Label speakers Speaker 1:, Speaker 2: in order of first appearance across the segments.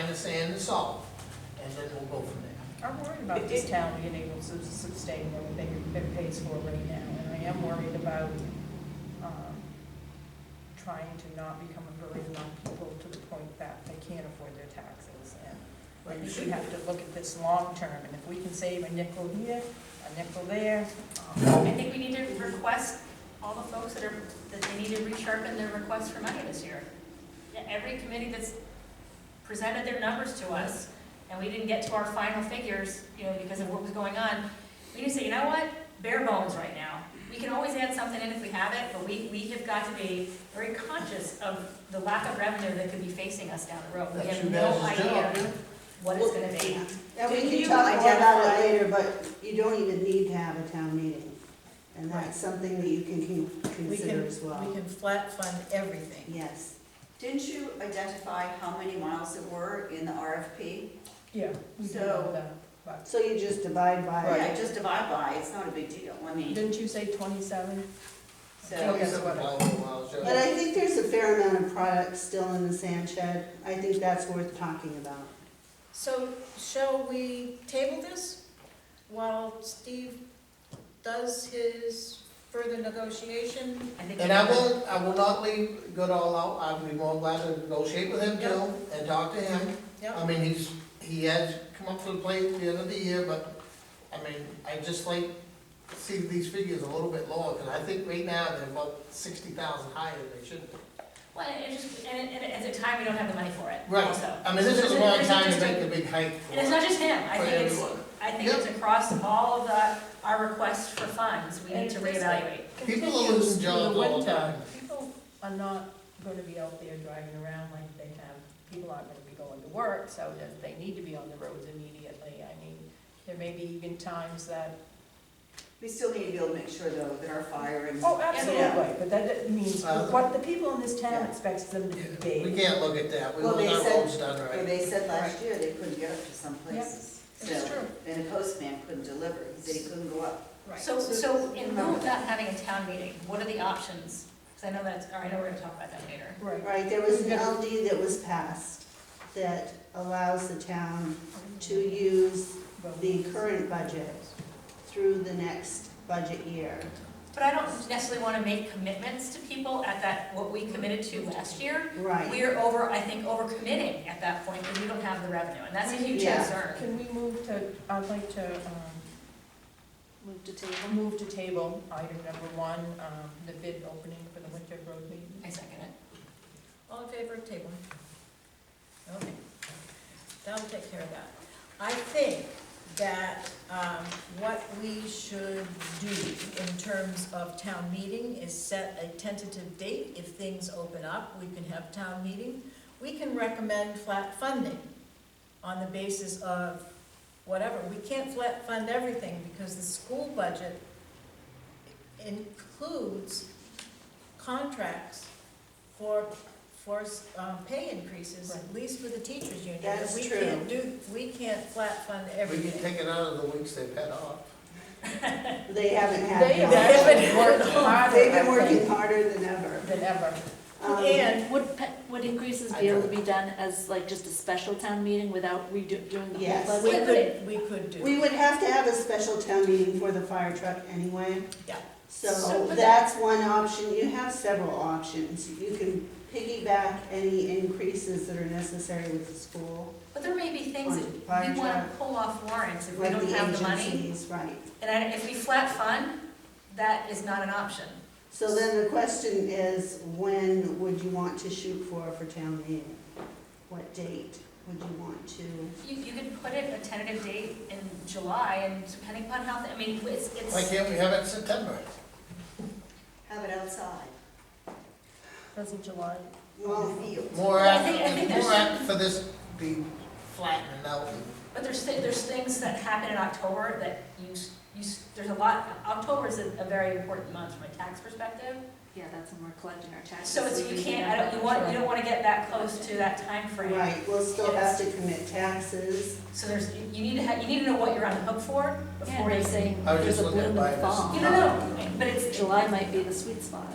Speaker 1: the sand and salt, and then we'll go from there.
Speaker 2: I'm worried about this town being able to sustain everything it pays for right now, and I am worried about, um, trying to not become a burden on people to the point that they can't afford their taxes, and I
Speaker 1: But you
Speaker 2: think
Speaker 1: should
Speaker 2: we have to look at this long-term, and if we can save a nickel here, a nickel there, um,
Speaker 3: I think we need to request all the folks that are, that they need to resharpen their requests for money this year. Yeah, Every committee that's presented their numbers to us, and we didn't get to our final figures, you know, because of what was going on, we need to say, you know what, bare bones right now. We can always add something in if we have it, but we, we have got to be very conscious of the lack of revenue that could be facing us down the road. We
Speaker 1: That's
Speaker 3: have
Speaker 1: your
Speaker 3: no
Speaker 1: guys' job,
Speaker 3: idea
Speaker 1: yeah.
Speaker 3: what it's gonna be.
Speaker 4: Yeah,
Speaker 5: Didn't
Speaker 4: we
Speaker 5: you
Speaker 4: can talk more about
Speaker 5: identify-
Speaker 4: it later, but you don't even need to have a town meeting. And that's something that you can con-
Speaker 5: We
Speaker 4: consider
Speaker 5: can,
Speaker 4: as
Speaker 5: we
Speaker 4: well.
Speaker 5: can flat fund everything.
Speaker 4: Yes.
Speaker 6: Didn't you identify how many miles there were in the RFP?
Speaker 2: yeah, we do
Speaker 6: So-
Speaker 2: know that, but,
Speaker 4: So you just abide by
Speaker 6: Yeah,
Speaker 4: it.
Speaker 6: just divide by, it's not a big deal, I mean,
Speaker 2: didn't you say twenty-seven?
Speaker 6: so,
Speaker 2: guess what?
Speaker 1: $27,000 miles, yeah.
Speaker 4: But I think there's a fair amount of product still in the sand shed. I think that's worth talking about.
Speaker 5: So shall we table this while Steve does his further negotiation?
Speaker 3: I think
Speaker 1: And I will, I will not leave Goodall out, I'll be more glad to negotiate with him too, and talk to him.
Speaker 5: Yep,
Speaker 1: I mean, he's, he has come up to the plate at the end of the year, but, I mean, I just like to see these figures a little bit lower, because I think right now they're about sixty thousand higher than they should be.
Speaker 3: Well, and it just, and, and at the time, we don't have the money for it,
Speaker 1: Right.
Speaker 3: also.
Speaker 1: I mean, this is a long time to make the big hike for,
Speaker 3: And it's not just him, I
Speaker 1: for
Speaker 3: think it's,
Speaker 1: everyone.
Speaker 3: I think it's across all of the, our requests for funds, we need to reevaluate.
Speaker 1: People are losing jobs all the time.
Speaker 2: People are not gonna be out there driving around like they have, people aren't gonna be going to work, so that they need to be on the roads immediately. I mean, there may be even times that.
Speaker 6: we still need to be able to make sure though that our fire and.
Speaker 2: Oh,
Speaker 6: absolutely,
Speaker 2: but that means
Speaker 1: what
Speaker 2: the people in this
Speaker 6: town
Speaker 2: expects them
Speaker 1: Uh, Yeah, We can't look at that, we
Speaker 6: Well,
Speaker 1: want
Speaker 6: they
Speaker 1: our
Speaker 6: said-
Speaker 1: roads done
Speaker 6: Well,
Speaker 1: right.
Speaker 6: they said last year they couldn't get up to some places,
Speaker 2: It's
Speaker 6: so,
Speaker 2: true,
Speaker 6: and a postman couldn't deliver, he said he couldn't go up.
Speaker 2: right.
Speaker 3: So, so in lieu of not having a town meeting, what are the options? Because I know that's, or I know we're gonna talk about that later.
Speaker 2: Right.
Speaker 4: Right, there was an LD that was passed that allows the town to use the current budget through the next budget year.
Speaker 3: But I don't necessarily want to make commitments to people at that, what we committed to last year.
Speaker 4: Right.
Speaker 3: We are over, I think, over committing at that point, because we don't have the revenue, and that's a huge
Speaker 4: Yeah.
Speaker 3: concern.
Speaker 2: Can we move to, I'd like to, um,
Speaker 5: move to table.
Speaker 2: I'll move to table item number one, um, the bid opening for the winter road
Speaker 3: I
Speaker 2: maintenance.
Speaker 3: second it.
Speaker 5: All in favor of table? Okay, that'll take care of that. I think that um, what we should do in terms of town meeting is set a tentative date. If things open up, we can have town meeting. We can recommend flat funding on the basis of whatever. We can't flat fund everything because the school budget includes contracts for, for um, pay increases, at least for the teachers union. and
Speaker 4: That's
Speaker 5: we
Speaker 4: true.
Speaker 5: can't do, we can't flat fund
Speaker 1: We can
Speaker 5: everything.
Speaker 1: take it out of the weeks they've had off.
Speaker 4: They haven't had.
Speaker 2: They have
Speaker 4: that.
Speaker 2: actually worked harder,
Speaker 4: They've been
Speaker 2: I
Speaker 4: working
Speaker 2: think,
Speaker 4: harder than ever.
Speaker 2: than ever.
Speaker 4: Um,
Speaker 5: And
Speaker 7: Would, pe- would increases
Speaker 1: I
Speaker 7: be able to
Speaker 1: don't-
Speaker 7: be done as like just a special town meeting without redo, doing the
Speaker 4: Yes.
Speaker 3: Um,
Speaker 7: whole
Speaker 5: we
Speaker 7: budget?
Speaker 5: could, we could do,
Speaker 4: We would have to have a special town meeting for the fire truck anyway.
Speaker 5: Yeah.
Speaker 4: So that's one option. You have several options. You can piggyback any increases that are necessary with the school,
Speaker 3: But there may be things
Speaker 4: On
Speaker 3: that
Speaker 4: fire
Speaker 3: we want to
Speaker 4: truck.
Speaker 3: pull off warrants if we
Speaker 4: like
Speaker 3: don't
Speaker 4: the
Speaker 3: have the money.
Speaker 4: agencies, right.
Speaker 3: And I- if we flat fund, that is not an option.
Speaker 4: So then the question is, when would you want to shoot for, for town meeting? What date would you want to?
Speaker 3: You, you could put it a tentative date in July and depending upon how, I mean, it's,
Speaker 1: Why
Speaker 3: it's,
Speaker 1: can't we have it in September?
Speaker 6: Have it outside,
Speaker 2: Doesn't July,
Speaker 6: on
Speaker 4: Well,
Speaker 6: the field.
Speaker 1: More
Speaker 3: Well, I
Speaker 1: apt,
Speaker 3: think- I think
Speaker 1: more
Speaker 3: there's-
Speaker 1: apt for this be flattened out.
Speaker 3: but there's, thi- there's things that happen in October that you, s- you, s- there's a lot, October is a a very important month from a tax perspective.
Speaker 7: Yeah, that's when we're collecting our taxes.
Speaker 3: So it's, you can't, I don't, you want, you don't want to get that close to that time frame.
Speaker 4: right, we'll still have to commit taxes.
Speaker 3: So there's, you- you need to have, you need to know what you're on the hook for before you say,
Speaker 1: I was
Speaker 7: There's
Speaker 1: just
Speaker 7: a
Speaker 1: looking at
Speaker 7: bloom in
Speaker 1: buying
Speaker 7: the
Speaker 1: this.
Speaker 7: fall.
Speaker 3: you don't know, but it's.
Speaker 7: July might be the sweet spot.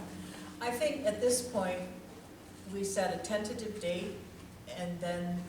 Speaker 5: I think at this point, we set a tentative date, and then